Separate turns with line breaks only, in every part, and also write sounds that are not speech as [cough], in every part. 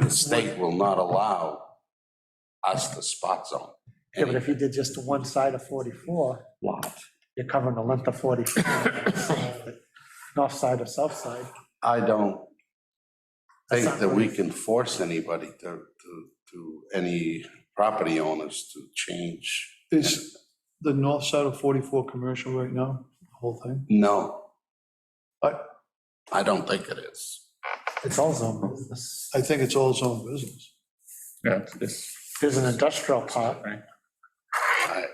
the state will not allow us the spot zone.
Yeah, but if you did just to one side of 44,
lot.
you're covering the length of 44. [laughs] North side or south side.
I don't
That's
think
not
that
right.
we can force anybody to, to, to any property owners to change.
Is the north side of 44 commercial right now, the whole thing?
No.
I-
I don't think it is.
It's all zone business.
I think it's all zone business.
Yeah, this,
There's an industrial part.
right,
I,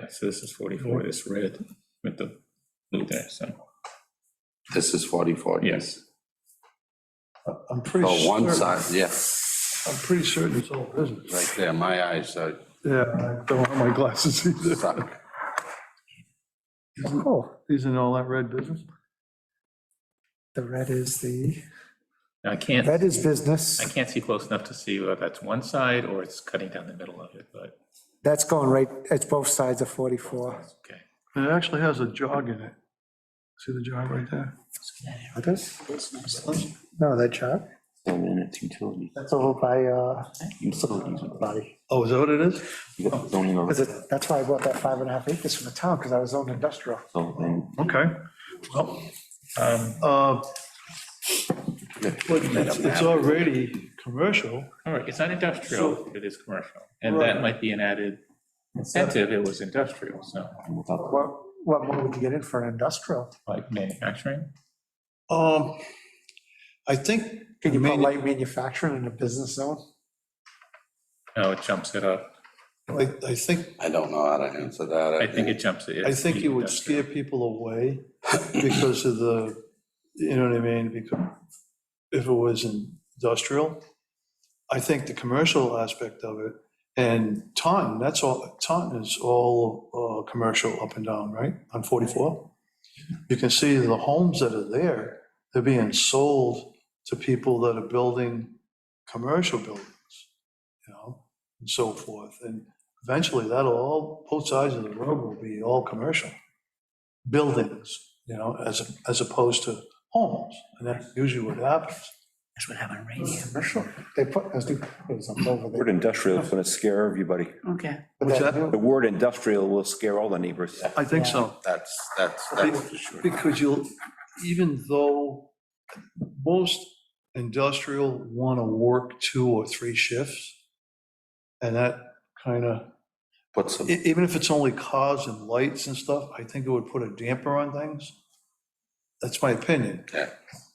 yeah, so this is 44, this red with the blue there, so,
this is 44.
yes.
I'm pretty
Oh, one
certain,
side, yeah,
I'm pretty certain it's all business.
right there. My eyes are
Yeah, I don't have my glasses either.
stuck.
Oh,
Isn't all that red business?
the red is the,
I can't,
red is
I
business.
can't see close enough to see whether that's one side or it's cutting down the middle of it, but
That's going right, it's both sides of 44.
it's okay.
And it actually has a jog in it. See the jog right there?
It is? No, that chart.
And then it's utility,
That's over by, uh,
utilities,
body.
Oh, is that what it is?
you got zoning over,
Is it, that's why I bought that five and a half acres from the town, because I was zoned industrial.
so then
Okay. Well,
Um,
uh, but it's it's already commercial.
All right, it's not industrial, it is commercial, and
Right.
that might be an added incentive, it was industrial, so,
without,
What, what more would you get in for an industrial?
like manufacturing,
Um, I think.
Can you put light manufacturing in a business zone?
no, it jumps it up,
I, I think,
I don't know how to answer that.
I think it jumps it.
I think you would
Industrial.
scare people away because of the, you know what I mean? Because if it was industrial, I think the commercial aspect of it, and Taunton, that's all, Taunton is all uh, commercial up and down, right? On 44? You can see the homes that are there, they're being sold to people that are building commercial buildings, you know, and so forth. And eventually that'll all, both sides of the road will be all commercial buildings, you know, as, as opposed to homes. And that's usually what happens.
That's what happened right here. Commercial, they put, those new, it was up over
Word
there.
industrial is going to scare everybody.
Okay.
But
What's
that
that?
new-
The word industrial will scare all the neighbors.
I think so.
That's, that's, that's for sure.
Because you'll, even though most industrial want to work two or three shifts, and that kind of,
Put some,
e- even if it's only cars and lights and stuff, I think it would put a damper on things. That's my opinion.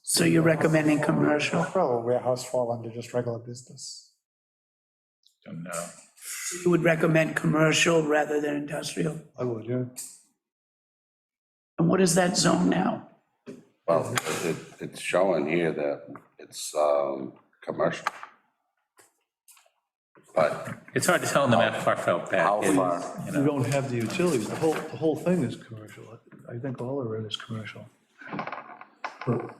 So you're recommending commercial?
Probably warehouse fall under just regular business.
Don't know.
You would recommend commercial rather than industrial?
I would, yeah.
And what is that zone now?
well, it, it's showing here that it's, um, commercial. But
It's hard to tell on the map how far
how
back it is.
far?
you
You
know.
don't have the utilities, the whole, the whole thing is commercial. I think all of it is commercial. But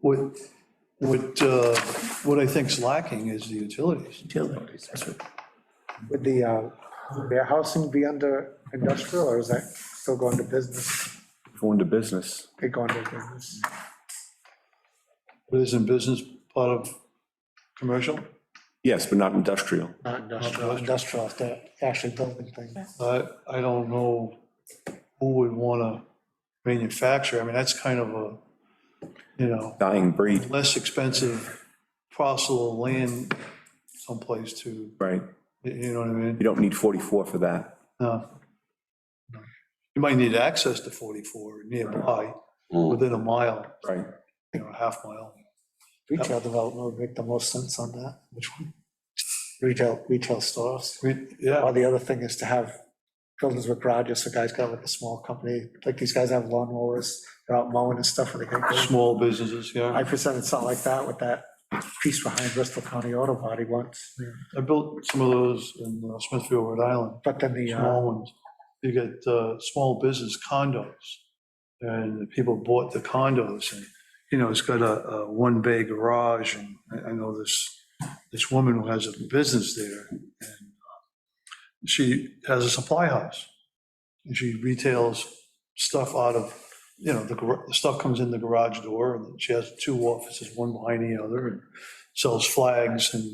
What, what, uh, what I think's lacking is the utilities.
Utilities, that's what-
Would the uh, warehousing be under industrial, or is that still going to business?
Going to business.
They go under business.
But isn't business part of commercial?
Yes, but not industrial.
Not industrial. Industrial, if they're actually building things.
I, I don't know who would want to manufacture. I mean, that's kind of a, you know,
Dying breed,
less expensive parcel of land someplace to,
right?
you know what I mean?
You don't need 44 for that.
No. You might need access to 44 nearby,
Hmm.
within a mile,
Right.
you know, a half mile.
Retail development would make the most sense on that. Which one? Retail, retail stores.
We- Yeah,
Or the other thing is to have buildings with garages, so guys got like a small company, like these guys have lawn mowers, they're out mowing and stuff, and they can go.
small businesses, yeah.
I presented something like that with that piece behind Bristol County Auto Body once,
I built some of those in uh, Smithfield, Rhode Island,
but then the, uh,
small ones. You get uh, small business condos, and the people bought the condos, and, you know, it's got a, a one-bay garage, and I, I know this, this woman who has a business there, and uh, she has a supply house, and she retails stuff out of, you know, the, gar- the stuff comes in the garage door, and she has two offices, one behind the other, and sells flags and